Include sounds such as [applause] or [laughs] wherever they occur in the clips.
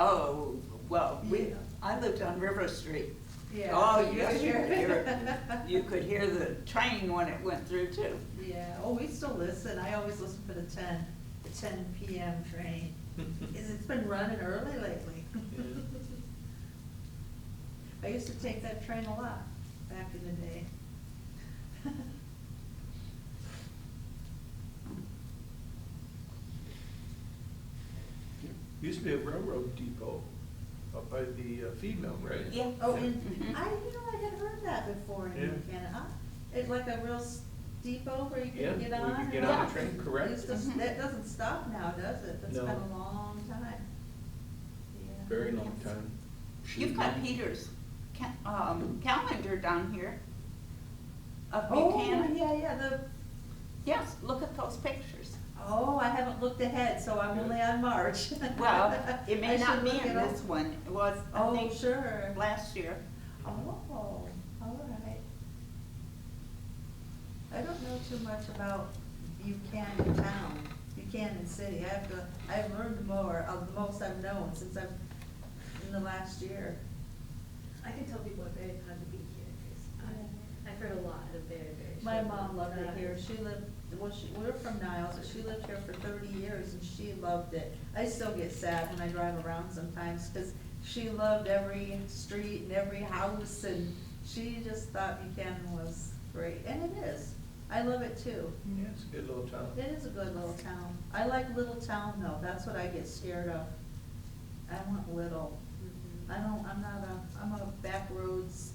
Oh, well, we, Yeah. I lived on River Street. Yeah. Oh, you Yeah, could sure. [laughs] hear, you could hear the train when it went through too. Yeah, oh, we still listen, I always listen for the ten, the ten PM [laughs] train, 'Cause it's been running early lately. Yeah. [laughs] I used to take that train a lot back in the day. [laughs] Used to be a railroad depot up by the uh, feed mill, right? Yeah. Oh, Yeah. and [laughs] Mhm. I, you know, I had heard that before in Yeah. Canada, Huh? it's like a real s- depot where you Yeah, can get where you on. can and get on the off. train, correct. Mm-hmm. It's just- Mhm. That doesn't stop now, does it? That's No. been a long time. Yeah. Very long time. You've got Peter's ca- um, calendar down here of Oh, Buchanan. yeah, yeah, the, Yes, look at those pictures. oh, I haven't looked ahead, so I'm Good. only on March. Well, [laughs] it I may not should be look in it up. this one. It was, I Oh, think, sure. last year. Oh, all right. I don't know too much about Buchanan Town, Buchanan City. I have to, I've learned more, uh, the most I've known since I've, in the last year. I can tell people are very proud to be here, because I've heard a lot of very, very. My short mom loved it rhymes. here. She lived, well, she, we're from Niles, but she lived here for thirty years and she loved it. I still get sad when I drive around sometimes, cause she loved every street and every house and she just thought Buchanan was great, and it is. I love it too. Yeah, it's a good little town. It is a good little town. I like little town though, that's what I get scared of. I want little. Mhm. I don't, I'm not a, I'm a backroads,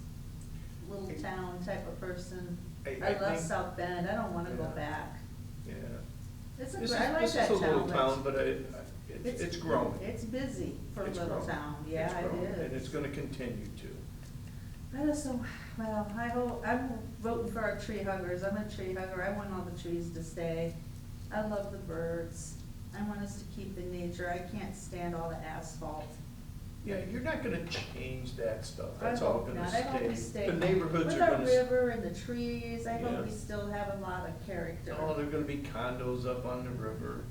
little town type of person. I- I I love think- South Bend, I don't wanna go Yeah. back. Yeah. It's a, This gr- is, I like this that is a town. little It's- town, but I, I- it's, it's growing. It's busy for a It's little growing. town, It's yeah, it growing, is. And it's gonna continue I just don't, well, I hope, I'm voting for our tree huggers, I'm a tree hugger, I want all the trees to stay. I love the birds, I want us to keep the nature, I can't stand all the asphalt. to. Yeah, you're not gonna change that stuff. I That's all hope gonna not. I hope we stay. The neighborhoods are gonna. With s- our river and the trees, I hope we Yeah. still have a lot of character. Oh, there're gonna be condos up on the river.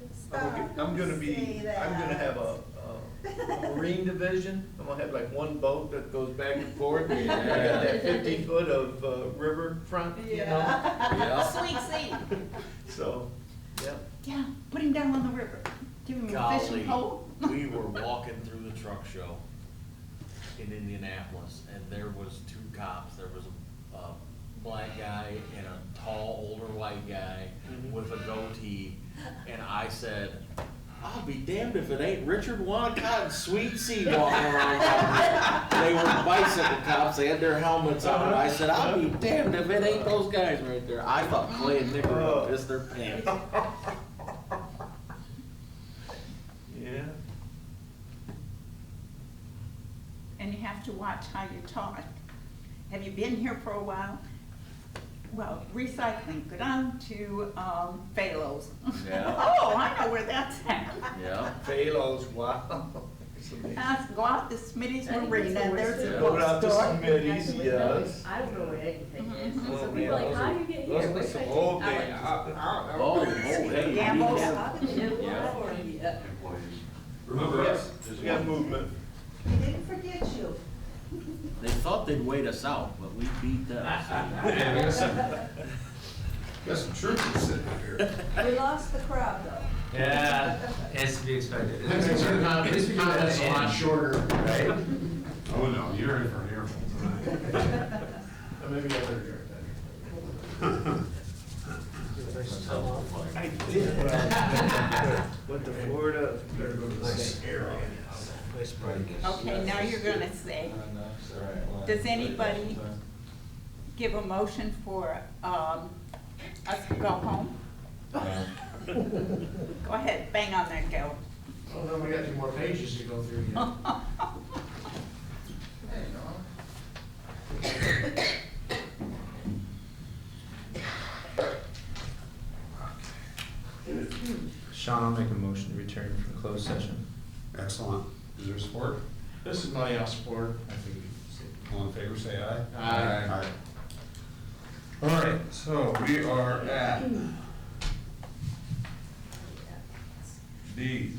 I'm Stop, gonna- I'm gonna say be, I'm gonna have a, a marine division, I'm gonna have like one boat that goes back and [laughs] forth. I got that fifty foot of uh, riverfront, you know, A [laughs] Yeah. Sweet seed. [laughs] so, yeah. Yeah, put him down on the river. Give him a Golly, fishing pole. we were walking through the truck show in Indianapolis, and there was two cops, there was a, a black guy and a tall, older white guy Mhm. with a goatee, and I said, I'll be damned if it ain't Richard Wanacott and Sweet Sea walking around down there." They were bicycle cops, they had their helmets on, I said, I'll be damned if it ain't those guys right there. I thought Clay and Nick were gonna piss [laughs] their pants. Yeah, And you have to watch how you talk. Have you been here for a while? Well, recycling, go down to, um, Phalos. Yeah. [laughs] Oh, I know where that's at. Yeah. Palos, wow. [laughs] It's amazing. Um, Uh, Go out to Smitty's I think Marina, that's the there's worst a Yeah. Go out to bookstore. Smitty's, yes. I don't know where anything is, Mhm. so Oh, Mm-hmm. people are man, like, how do those you get are- here? those Where's are my some ticket?" old I'm like, days. I- I- I- Oh, oh, hey. Yeah, you most- know. How did they do Yeah. that for you? employees. Remember us, Just we got [laughs] one. movement. They didn't forget you. They thought they'd wait us out, but we beat them. Yeah, we got some, got some troopers sitting here. We lost the crowd though. Yeah, it's to be expected. His comments a lot shorter, right? Oh, no, you're in for an earful tonight. [laughs] Maybe I better drink that. I did. when I was- Went to Florida. Better go to the Nice area. Okay, now you're gonna Uh, say, does anybody give a motion for, um, us to go home? [laughs] Go ahead, bang on that [laughs] go. Oh, no, we got two more pages to go through yet. Sean, I'll make a motion to return from closed session. Excellent. Is there support? This is my house board. I think, all in favor, say aye. Aye. Aye. All right, so we are at D,